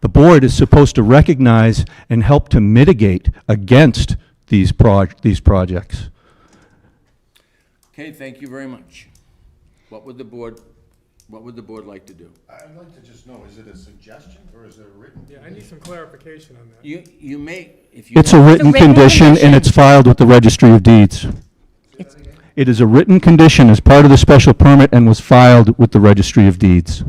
the board is supposed to recognize and help to mitigate against these proj, these projects. Okay, thank you very much. What would the board, what would the board like to do? I'd like to just know, is it a suggestion or is it a written? Yeah, I need some clarification on that. You, you may, if you. It's a written written condition and condition. it's filed with the registry of deeds. It's- It is a written condition as part of the special permit and was filed with the registry of deeds.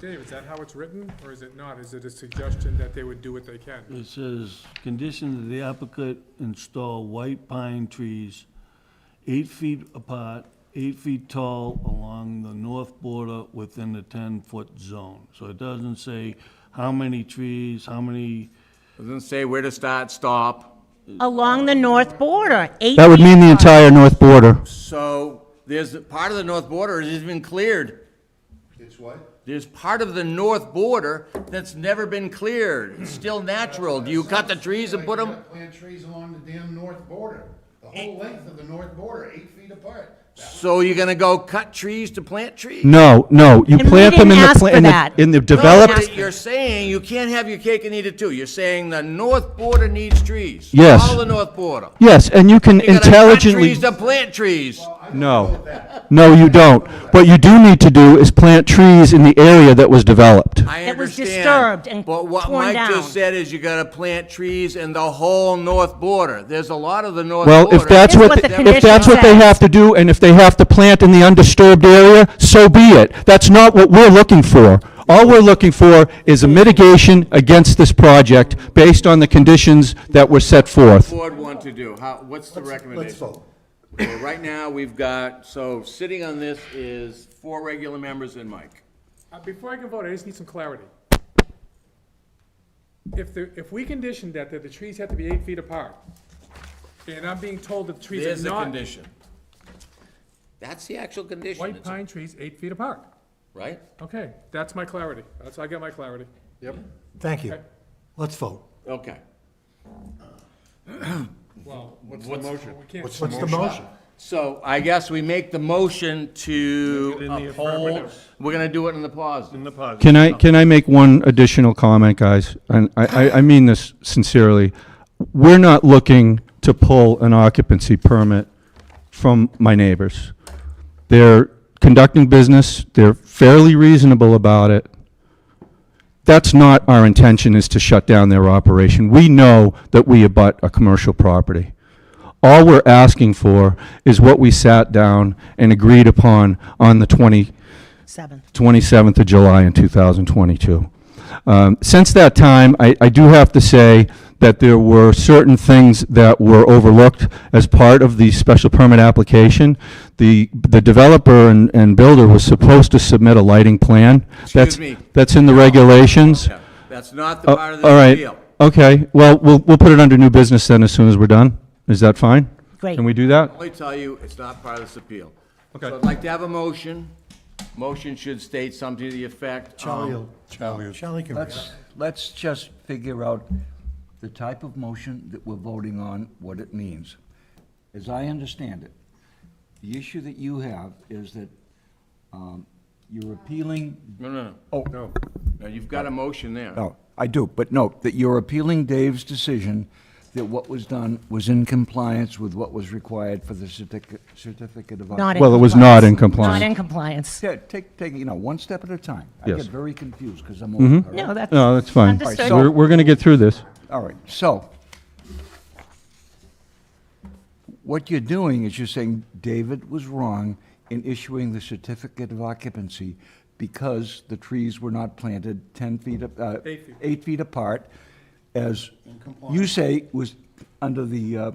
Dave, is that how it's written, or is it not? Is it a suggestion that they would do what they can? It says, condition that the applicant install white pine trees eight feet apart, eight feet tall along the north border within the ten-foot zone. So it doesn't say how many trees, how many, Doesn't say where to start, stop. Along the north border, eight That would feet mean the apart. entire north border. So there's, part of the north border has been cleared. It's what? There's part of the north border that's never been cleared. It's still natural. Do you cut the trees and put You them? gotta Plant trees along the damn north border, the whole length of the north border, eight feet apart. So you're gonna go cut trees to plant trees? No, no, you And we plant them in didn't the, ask pla- for in the, that. in the ask- developed, You're saying you can't have your cake and eat it too. You're saying the north border needs trees. Yes. All the north border. yes, and you can You gotta cut intelligently, Trees to plant trees. no. No, you don't. What you do need to do is plant trees in the area that was developed. I It was understand. disturbed and But what torn Mike down. just said is you gotta plant trees in the whole north border. There's a lot of the north border. Well, if that's That's what, what th- the if that's condition what they says. have to do, and if they have to plant in the undisturbed area, so be it. That's not what we're looking for. All we're looking for is a mitigation against this project based on the conditions that were set forth. Board want to do, how, what's the recommendation? Let's vote. Well, right now, we've got, so sitting on this is four regular members and Mike. Uh, Before I can vote, I just need some clarity. If the, if we conditioned that, that the trees have to be eight feet apart, and I'm being told that the trees There's are the not, condition. That's the actual condition, white it's- pine trees eight feet apart. right? Okay, that's my clarity. That's, I get my clarity. Thank you. Let's vote. Um, Okay. Well, what's the motion? We can't, What's the motion? So I guess we make the motion to uphold, we're gonna do it in the pause. in the positive. Can I, can I make one additional comment, guys? And I, I, I mean this sincerely. We're not looking to pull an occupancy permit from my neighbors. They're conducting business, they're fairly reasonable about it. That's not our intention, is to shut down their operation. We know that we abut a commercial property. All we're asking for is what we sat down and agreed upon on the 20, Seven. 27th of July in 2022. Um, Since that time, I I do have to say that there were certain things that were overlooked as part of the special permit application. The the developer and and builder was supposed to submit a lighting plan. That's- me. That's in the regulations. Yeah, That's not the Uh, part of All the right. deal. Okay, well, we'll we'll put it under new business then as soon as we're done. Is that fine? Great. Can we do that? Let me tell you, it's not part of this appeal. Okay. So I'd like to have a motion. Motion should state something to the effect. Charlie, um, will- Charlie can read it. Let's, let's just figure out the type of motion that we're voting on, what it means. As I understand it, the issue that you have is that um, you're appealing, No, no, no. oh, no, No, you've got a motion there. Oh. no, I do, but no, that you're appealing Dave's decision that what was done was in compliance with what was required for the certificate, certificate of. Not in Well, it was not in compliance. Not in compliance. Yeah, take, take, you know, one step at a time. I Yes. get very confused because I'm old. all right? No, that's. No, that's fine. Understood. We're We're going to get through this. All right, so what you're doing is you're saying David was wrong in issuing the certificate of occupancy because the trees were not planted 10 feet, ap- uh, Eight feet. eight feet apart, as you say was under the, uh,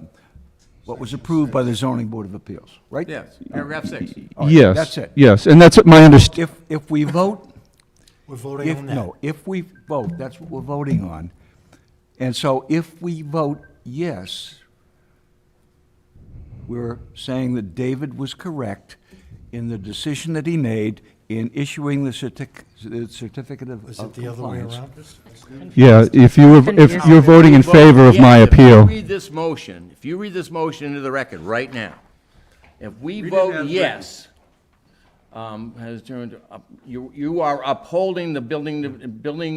what was approved by the zoning board of appeals, right? Yes, paragraph six. All right, Yes. That's it. Yes, and that's my understanding. If, if we vote We're voting If, on that. no, if we vote, that's what we're voting on. And so if we vote yes, we're saying that David was correct in the decision that he made in issuing the certic- the certificate of Is of it the other way uh, compliance. around? Yeah, if you were, if you're voting in favor of my Yeah, If appeal, you read this motion, if you read this motion into the record right now, if we Read it as vote written. yes, um, has turned, up- you, you are upholding the building, building